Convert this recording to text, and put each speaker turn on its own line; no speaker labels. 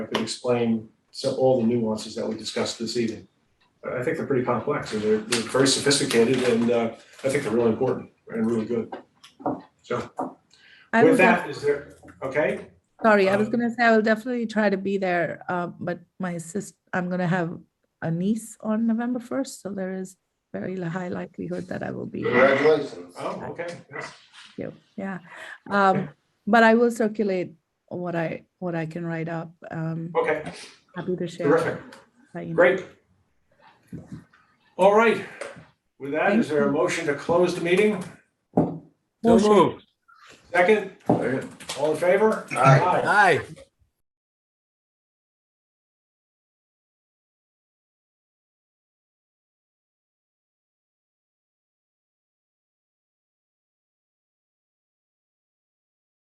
I could explain so all the nuances that we discussed this evening. I I think they're pretty complex and they're they're very sophisticated and uh I think they're really important and really good. With
I will, def-
that, is there, okay,
sorry, I was
um,
gonna say, I will definitely try to be there, uh, but my sis, I'm gonna have a niece on November first, so there is very li- high likelihood that I will be, there.
Congratulations.
oh, okay, yes,
yeah. Um, but I will circulate what I, what I can write up, um,
okay,
happy to share.
terrific.
by email.
Great. All right, with that, is
Thank
there a motion to close the meeting?
So
Motion.
moved.
Second, all in favor?
Aye.
Aye.